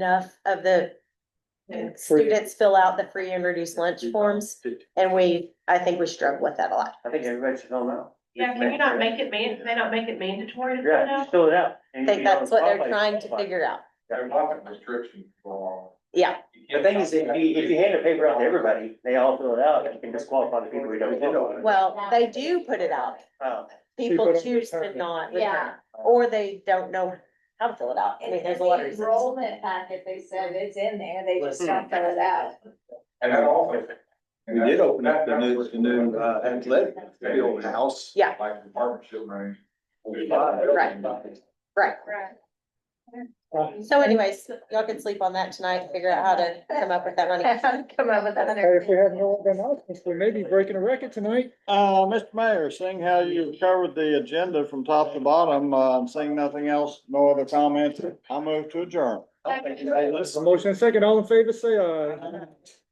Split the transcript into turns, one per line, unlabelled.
enough of the students fill out the free and reduced lunch forms. And we, I think we struggle with that a lot.
I think everybody should all know.
Yeah, can you not make it man, they not make it mandatory to fill
Yeah,
out?
just fill it out.
I think that's what they're trying to figure out.
There's lots of restrictions for.
Yeah,
The thing is, if you, if you hand a paper out to everybody, they all fill it out, you can disqualify the people who don't fill it.
well, they do put it out.
Oh,
People choose to not,
Yeah.
or they don't know how to fill it out. I mean, there's a lot of reasons.
Enrollment packet, they said it's in there, they just don't fill it out.
And that also.
We did open up the new, the new uh, athletic field house.
Yeah.
Like the partnership range.
Right. Right.
Right.
So anyways, y'all can sleep on that tonight, figure out how to come up with that money.
Come up with a
Hey,
hundred.
If we have no other announcements, we may be breaking a record tonight.
Uh, Mr. Mayor, seeing how you've covered the agenda from top to bottom, uh, seeing nothing else, no other comments, I move to adjourn.
A motion and second, all in favor, say aye.